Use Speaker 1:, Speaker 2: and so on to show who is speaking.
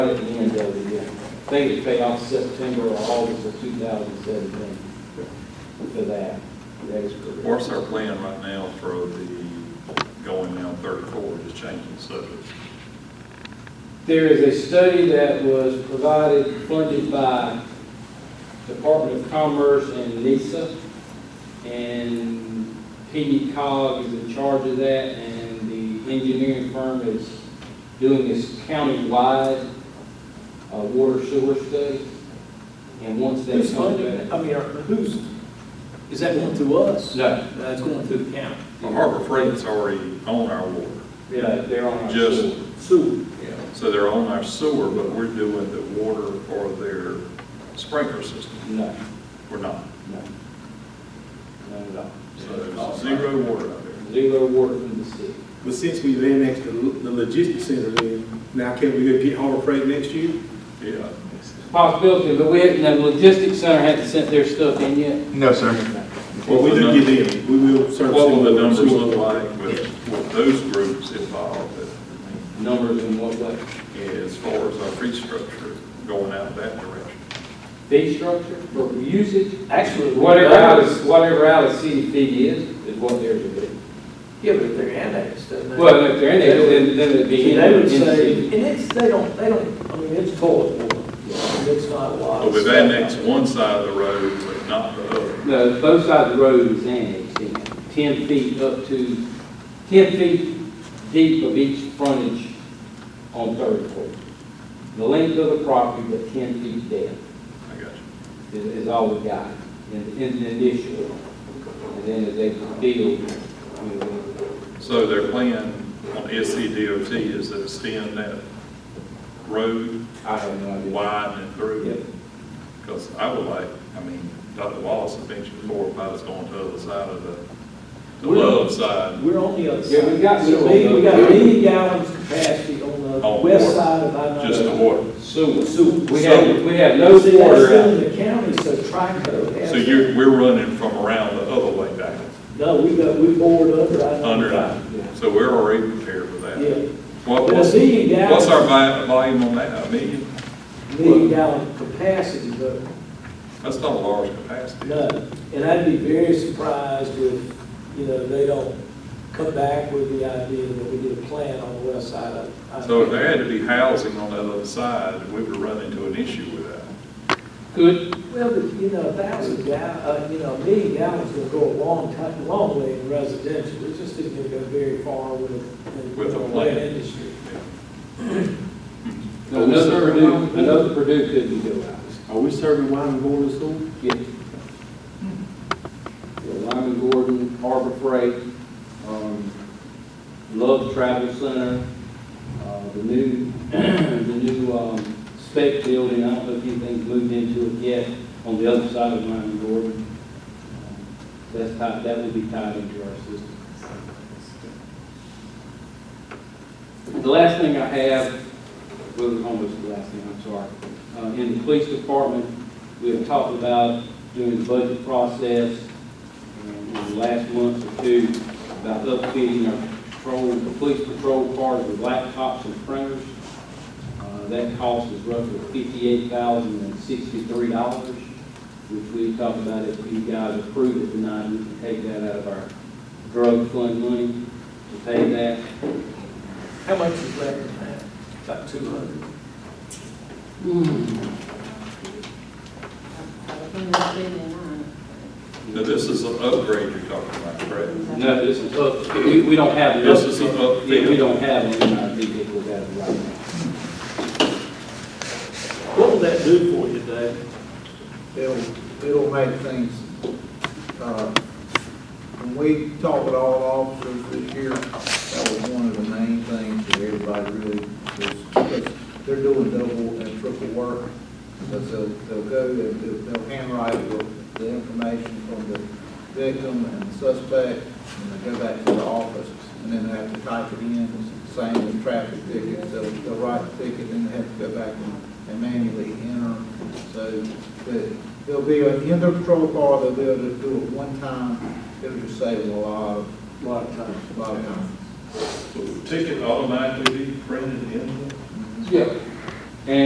Speaker 1: At the end of the year. They was paid off September or August of 2017 for that. That is correct.
Speaker 2: What's our plan right now for the going down 34, just changing the subject?
Speaker 1: There is a study that was provided, funded by Department of Commerce and NISA, and PD cog is in charge of that, and the engineering firm is doing this county-wide uh, water sewer study. And once that
Speaker 3: Who's
Speaker 1: comes
Speaker 3: funding,
Speaker 1: back.
Speaker 3: I mean, are- who's, is that going through us?
Speaker 1: No,
Speaker 3: That's going through the county.
Speaker 2: Well, Harbor Freight's already on our water,
Speaker 1: no, they're on our
Speaker 2: Just-
Speaker 1: sewer.
Speaker 3: Sewer.
Speaker 2: so they're on our sewer, but we're doing the water for their sprinkler system.
Speaker 1: No,
Speaker 2: We're not.
Speaker 1: no. None at all.
Speaker 2: So
Speaker 1: Oh,
Speaker 2: there's zero water out there.
Speaker 1: Zero water from the city.
Speaker 4: But since we've annexed the, the logistics center in, now can we go get Harbor Freight next year?
Speaker 2: Yeah.
Speaker 1: Possibility, but we, haven't- the logistics center hasn't sent their stuff in yet.
Speaker 5: No, sir.
Speaker 4: Well, we do get them, we will service.
Speaker 2: What will the
Speaker 4: them.
Speaker 2: numbers look like with, with those groups involved?
Speaker 1: Numbers in what way?
Speaker 2: As far as our fee structure going out that direction?
Speaker 1: Fee structure for usage?
Speaker 3: Actually,
Speaker 1: Whatever out of, whatever out of city fee is, is what theirs would be.
Speaker 3: Yeah, but if they're annexed, doesn't it?
Speaker 1: Well, if they're in there, then, then it'd be
Speaker 3: See,
Speaker 1: in.
Speaker 3: They would
Speaker 1: in
Speaker 3: say,
Speaker 1: city.
Speaker 3: and it's, they don't, they don't, I mean, it's toilet water. It's not a lot.
Speaker 2: Well,
Speaker 3: of
Speaker 2: we've
Speaker 3: stuff.
Speaker 2: annexed one side of the road, but not the other.
Speaker 1: No, both sides of the road is annexed in, ten feet up to, ten feet deep of each frontage on Third Court. The length of the property, but ten feet depth.
Speaker 2: I got you.
Speaker 1: is, is all we got in, in the initial. And then as they build, I mean,
Speaker 2: So their plan on E SCDOT is to extend that road
Speaker 1: I have no idea.
Speaker 2: wide and
Speaker 1: Yep.
Speaker 2: through? Because I would like, I mean, Dr. Wallace had mentioned before about us going to the other side of the, the
Speaker 3: We're-
Speaker 2: love side.
Speaker 3: We're on the other side.
Speaker 1: Yeah, we got
Speaker 3: So
Speaker 1: sewer.
Speaker 3: we, we got a million gallons capacity on the
Speaker 2: On
Speaker 3: west
Speaker 2: water.
Speaker 3: side of I-9.
Speaker 2: Just the water.
Speaker 1: Sewer.
Speaker 3: Sewer.
Speaker 1: We have, we have no
Speaker 3: See, that's
Speaker 1: water
Speaker 3: still
Speaker 1: out.
Speaker 3: in the county, so Trico has.
Speaker 2: So you're, we're running from around the other way back,
Speaker 3: No, we got, we bored under I-9.
Speaker 2: under that.
Speaker 1: Yeah.
Speaker 2: So we're already prepared for that.
Speaker 3: Yeah.
Speaker 2: What,
Speaker 3: But a
Speaker 2: what's,
Speaker 3: million gallons.
Speaker 2: what's our vi- volume on that? A million?
Speaker 3: million gallon capacity, but
Speaker 2: That's not a large capacity.
Speaker 3: none. And I'd be very surprised if, you know, they don't come back with the idea that we need a plan on the west side of. I-
Speaker 2: So if there had to be housing on that other side, we would run into an issue with that.
Speaker 1: Good,
Speaker 3: Well, but, you know, a thousand gallon, uh, you know, a million gallons will go a long time, long way in residential. It just isn't gonna go very far with.
Speaker 2: With a
Speaker 3: the
Speaker 2: plan.
Speaker 3: Industry.
Speaker 1: another Purdue, another Purdue couldn't do it.
Speaker 4: Are we serving wine and going to school?
Speaker 1: Yeah. Yeah, Lyman Gordon, Harbor Freight, um, Love Travel Center, uh, the new, the new, um, spec building, I don't know if anything's moved into it yet, on the other side of Lyman Gordon. Um, That's tied, that would be tied into our system. The last thing I have, well, almost the last thing, I'm sorry. Uh, in the police department, we have talked about doing the budget process um, in the last month or two about upfitting our patrol, the police patrol cars with laptops and printers. Uh, That cost is roughly fifty-eight thousand and sixty-three dollars, which we talked about if you guys approve it tonight, we can take that out of our drug fund money to pay that.
Speaker 3: How much is that in that? About two hundred.
Speaker 2: Now, this is an upgrade you're talking about, correct?
Speaker 1: No, this is up, we, we don't have.
Speaker 2: This is an up-
Speaker 1: Yeah, we don't have them in our vehicle that right now.
Speaker 3: What will that do for you, Dave?
Speaker 6: It'll, it'll make things, uh, when we talk with all officers this year, that was one of the main things that everybody really, was because they're doing double and triple work. Because they'll, they'll go, and they'll they'll handwrite the- the information from the victim and the suspect, and they go back to the office, and then they have to type it in, same with traffic tickets, they'll, they'll write the ticket, then they have to go back and- and manually enter. So, the there'll be, a- in the patrol car, they'll be able to do it one time, it'll just save a lot of,
Speaker 3: Lot of time.
Speaker 6: a lot of time.
Speaker 2: Will the ticket automatically be printed in?
Speaker 1: Yeah,